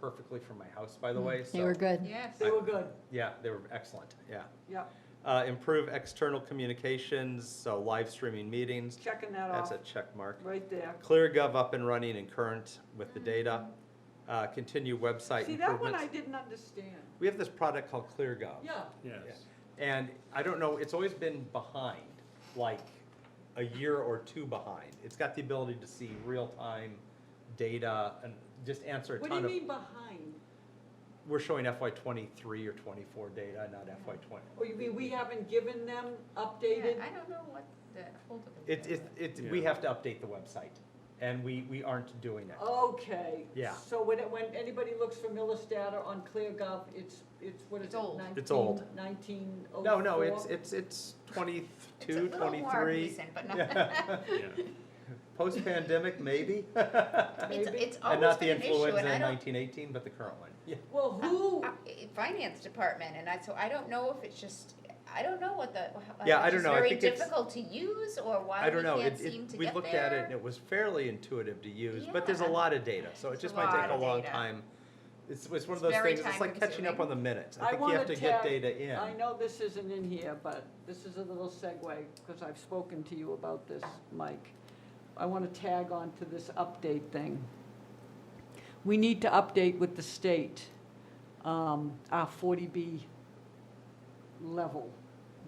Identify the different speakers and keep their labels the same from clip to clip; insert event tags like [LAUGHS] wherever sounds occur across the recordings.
Speaker 1: perfectly from my house, by the way, so.
Speaker 2: Mm, They were good.
Speaker 3: Yes.
Speaker 1: They were
Speaker 4: good,
Speaker 1: Yeah, they were excellent, yeah.
Speaker 4: yeah,
Speaker 1: Uh, Improve external communications, so live streaming meetings,
Speaker 4: checking that
Speaker 1: that's
Speaker 4: off,
Speaker 1: a check mark.
Speaker 4: right there.
Speaker 1: ClearGov up and running and current with the data. Uh, Continue website
Speaker 4: Mm. See, that one I
Speaker 1: improvements.
Speaker 4: didn't understand.
Speaker 1: We have this product called ClearGov.
Speaker 4: Yeah,
Speaker 5: Yes.
Speaker 1: And I don't know, it's always been behind, like a year or two behind. It's got the ability to see real-time data and just answer a
Speaker 4: what
Speaker 1: ton
Speaker 4: do
Speaker 1: of.
Speaker 4: you mean behind?
Speaker 1: We're showing FY twenty-three or twenty-four data, not FY twenty.
Speaker 4: Or Oh, you mean we haven't given them updated?
Speaker 3: Yeah, I don't know what the hold up.
Speaker 1: It, it, it, we
Speaker 5: Yeah.
Speaker 1: have to update the website, and we, we aren't doing it.
Speaker 3: Oh,
Speaker 4: Okay.
Speaker 1: Yeah.
Speaker 4: So when, it- when anybody looks for Millis data on ClearGov, it's, it's, what is it?
Speaker 3: It's old.
Speaker 1: It's old.
Speaker 4: Nineteen oh four?
Speaker 1: No, no, it's,
Speaker 3: [LAUGHS]
Speaker 1: it's, it's twenty-two,
Speaker 3: It's a little more
Speaker 1: twenty-three.
Speaker 3: recent, but not.
Speaker 1: Yeah.
Speaker 5: Yeah.
Speaker 1: [LAUGHS] Post-pandemic, maybe?
Speaker 3: [LAUGHS]
Speaker 1: [LAUGHS]
Speaker 3: It's,
Speaker 4: Maybe.
Speaker 3: Oh, it's
Speaker 1: And
Speaker 3: always
Speaker 1: not the
Speaker 3: been an issue,
Speaker 1: influenza
Speaker 3: and I
Speaker 1: in
Speaker 3: don't,
Speaker 1: nineteen eighteen, but the current one. Yeah.
Speaker 4: Well, who,
Speaker 3: I- finance department, and I, so I don't know if it's just, I don't know what the, how-
Speaker 1: Yeah, I
Speaker 3: if
Speaker 1: don't
Speaker 3: it's
Speaker 1: know. I
Speaker 3: very
Speaker 1: think it's-
Speaker 3: difficult to use, or why
Speaker 1: I
Speaker 3: we
Speaker 1: don't know,
Speaker 3: can't
Speaker 1: it, it-
Speaker 3: seem to
Speaker 1: we
Speaker 3: get
Speaker 1: looked at it and
Speaker 3: there.
Speaker 1: it was fairly intuitive to use, but there's a
Speaker 3: Yeah.
Speaker 1: lot of data, so it
Speaker 3: It's
Speaker 1: just
Speaker 3: a
Speaker 1: might
Speaker 3: lot
Speaker 1: take a
Speaker 3: of
Speaker 1: long
Speaker 3: data.
Speaker 1: time. It's, it's one of
Speaker 3: It's
Speaker 1: those
Speaker 3: very
Speaker 1: things, it's like catching up
Speaker 3: time-consuming.
Speaker 1: on the minutes.
Speaker 4: I
Speaker 1: I think you have
Speaker 4: wanna
Speaker 1: to get
Speaker 4: tag-
Speaker 1: data in.
Speaker 4: I know this isn't in here, but this is a little segue, because I've spoken to you about this, Mike. I want to tag on to this update thing. We need to update with the state, um, our 40B level,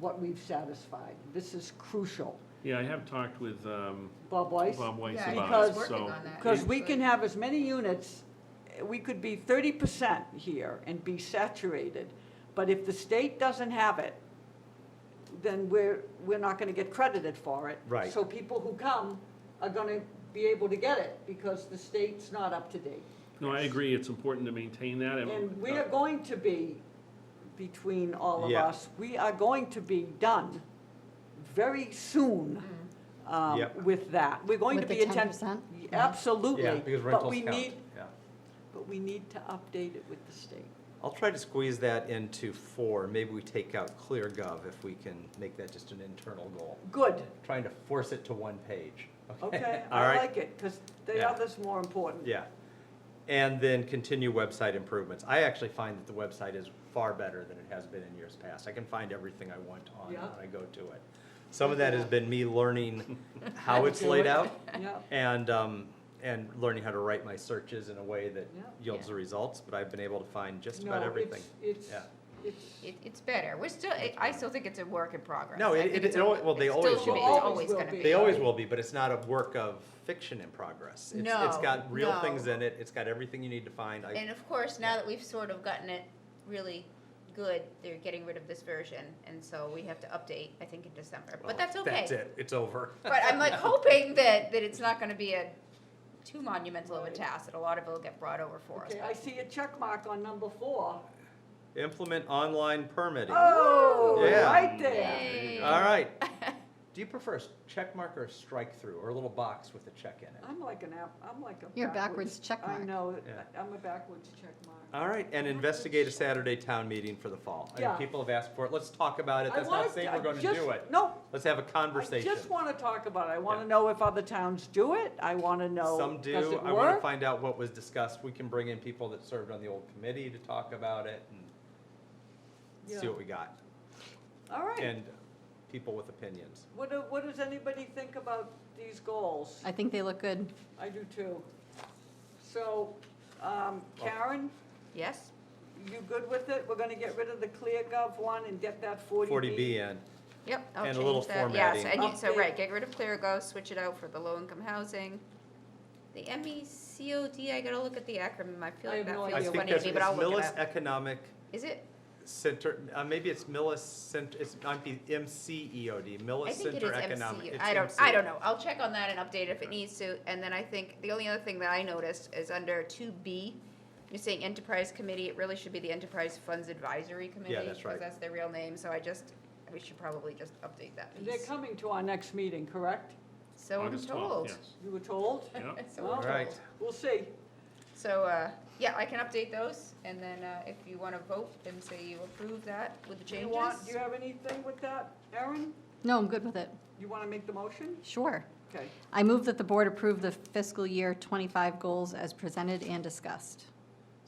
Speaker 4: what we've satisfied. This is crucial.
Speaker 5: Yeah, I have talked with um,
Speaker 4: Bob Weiss?
Speaker 5: Bob Weiss
Speaker 3: Yeah, I
Speaker 4: think
Speaker 5: about it,
Speaker 4: he's
Speaker 3: working
Speaker 5: so.
Speaker 3: on that.
Speaker 4: Because we
Speaker 3: Actually.
Speaker 4: can have as many units, we could be thirty percent here and be saturated. But if the state doesn't have it, then we're, we're not gonna get credited for it.
Speaker 1: Right.
Speaker 4: So people who come are gonna be able to get it because the state's not up to date.
Speaker 5: No, I agree, it's important to maintain that. uh,
Speaker 4: And we are going to be, between all of
Speaker 1: Yeah.
Speaker 4: us, we are going to be done very soon um,
Speaker 1: Yep.
Speaker 4: with that. We're going to
Speaker 2: Mm. With
Speaker 4: be
Speaker 2: the
Speaker 4: a ten.
Speaker 2: 10%?
Speaker 4: Absolutely.
Speaker 1: Yeah, because
Speaker 4: But
Speaker 1: rentals
Speaker 4: we
Speaker 1: count,
Speaker 4: need-
Speaker 1: yeah.
Speaker 4: But we need to update it with the state.
Speaker 1: I'll try to squeeze that into four. Maybe we take out ClearGov if we can make that just an internal goal.
Speaker 4: Good,
Speaker 1: Trying to force it to one page. [LAUGHS]
Speaker 4: okay,
Speaker 1: All
Speaker 4: I
Speaker 1: right.
Speaker 4: like it, because the
Speaker 1: Yeah.
Speaker 4: other's more important.
Speaker 1: Yeah. And then continue website improvements. I actually find that the website is far better than it has been in years past. I can find everything I want on
Speaker 4: Yeah.
Speaker 1: when I go to it. Some of that has been me
Speaker 4: [LAUGHS]
Speaker 1: learning how it's
Speaker 4: Do
Speaker 1: laid
Speaker 4: it.
Speaker 1: out
Speaker 4: Yeah,
Speaker 1: and, um, and learning how to write my searches in a way that
Speaker 4: Yeah.
Speaker 1: yields the results, but I've been able to find just about
Speaker 4: No,
Speaker 1: everything.
Speaker 4: It's,
Speaker 1: Yeah.
Speaker 4: it's,
Speaker 3: It, it's better, we're still, I- I still think it's a work in progress.
Speaker 1: No,
Speaker 3: I
Speaker 1: it-
Speaker 3: think
Speaker 1: it-
Speaker 3: it's
Speaker 1: it
Speaker 3: a-
Speaker 1: al- well, they
Speaker 3: it still
Speaker 1: always
Speaker 3: should be.
Speaker 1: will
Speaker 3: It's
Speaker 4: be.
Speaker 3: always gonna
Speaker 4: Always
Speaker 3: be.
Speaker 4: will
Speaker 1: They always will be, but it's not a work of fiction in progress. It's, it's
Speaker 3: No,
Speaker 1: got real
Speaker 3: no.
Speaker 1: things in it. It's got everything you need to find. I,
Speaker 3: And of course, now that we've sort of gotten it really good, they're getting rid of this version, and so we have to update, I think, in December,
Speaker 1: well,
Speaker 3: but that's okay.
Speaker 1: That's it. It's over.
Speaker 3: [LAUGHS]
Speaker 4: [LAUGHS]
Speaker 3: But
Speaker 1: [LAUGHS]
Speaker 3: I'm like hoping that, that it's not gonna be a too monumental of a task, that a lot of it'll get brought over for us.
Speaker 4: okay, I see a check mark on number four.
Speaker 1: Implement online permitting.
Speaker 4: Oh,
Speaker 1: Yeah.
Speaker 4: right there.
Speaker 3: Yay.
Speaker 1: All
Speaker 4: [LAUGHS]
Speaker 1: right. Do you prefer a s- check mark or a strike through or a little box with a check in it?
Speaker 4: I'm like an app, I'm like a.
Speaker 2: You're a backwards check
Speaker 4: I
Speaker 2: mark.
Speaker 4: know,
Speaker 1: Yeah.
Speaker 4: I'm a backwards check mark.
Speaker 1: All right, and investigate a Saturday town meeting for the fall. I
Speaker 4: Yeah.
Speaker 1: know people have asked for it. Let's talk about it.
Speaker 4: I
Speaker 1: That's not
Speaker 4: wanted
Speaker 1: saying
Speaker 4: to-
Speaker 1: we're going to
Speaker 4: just-
Speaker 1: do it.
Speaker 4: No,
Speaker 1: Let's have a
Speaker 4: I
Speaker 1: conversation.
Speaker 4: just want to talk about it. I want
Speaker 1: Yeah.
Speaker 4: to know if other towns do it. I want to know.
Speaker 1: Some
Speaker 4: Does
Speaker 1: do.
Speaker 4: it
Speaker 1: I want to
Speaker 4: work?
Speaker 1: find out what was discussed. We can bring in people that served on the old committee to talk about it and see
Speaker 4: Yeah.
Speaker 1: what we got.
Speaker 4: All right.
Speaker 1: And people with opinions.
Speaker 4: What, do- what does anybody think about these goals?
Speaker 2: I think they look good.
Speaker 4: I do too. So, um,
Speaker 1: Oh.
Speaker 4: Karen,
Speaker 3: Yes,
Speaker 4: you good with it? We're gonna get rid of the ClearGov one and get that forty B?
Speaker 1: Forty B and,
Speaker 3: yep, I'll
Speaker 1: And a little
Speaker 3: change that, yes, I
Speaker 1: formatting.
Speaker 3: need, so,
Speaker 4: Update.
Speaker 3: right, get rid of clear go, switch it out for the low-income housing. The M E C O D, I gotta look at the acronym, I feel like
Speaker 4: I have
Speaker 3: that
Speaker 4: no
Speaker 1: I
Speaker 3: feels
Speaker 4: idea
Speaker 1: think
Speaker 3: funny to
Speaker 1: that's,
Speaker 3: me,
Speaker 1: it's
Speaker 3: but I'll look it
Speaker 1: Millis
Speaker 3: up.
Speaker 1: Economic
Speaker 3: Is it?
Speaker 1: Center, uh, maybe it's Millis Cent, it's, might be MCEOD,
Speaker 3: I
Speaker 1: Millis
Speaker 3: think it
Speaker 1: Center
Speaker 3: is
Speaker 1: Economic.
Speaker 3: MCU.
Speaker 1: it's E
Speaker 3: I don't,
Speaker 1: MC.
Speaker 3: I don't know. I'll check on that and update if
Speaker 1: Okay.
Speaker 3: it needs to. And then I think, the only other thing that I noticed is under two B, you're saying enterprise committee, it really should be the enterprise funds advisory committee.
Speaker 1: that's right.
Speaker 3: Because that's their real name, so I just, we should probably just update that
Speaker 4: They're
Speaker 3: piece.
Speaker 4: coming to our next meeting, correct?
Speaker 3: So I'm
Speaker 5: August 12th,
Speaker 3: told.
Speaker 5: yes.
Speaker 4: You were told?
Speaker 5: Yeah.
Speaker 3: So I'm
Speaker 4: All
Speaker 1: right.
Speaker 3: told.
Speaker 4: We'll see.
Speaker 3: So, uh, yeah, I can update those and then, uh, if you wanna vote and say you approve that with the
Speaker 4: Do you
Speaker 3: changes.
Speaker 4: want, do you have anything with that, Erin?
Speaker 2: No, I'm good with it.
Speaker 4: You wanna make the motion?
Speaker 2: Sure.
Speaker 4: Okay.
Speaker 2: I move that the board approve the fiscal year 25 goals as presented and discussed.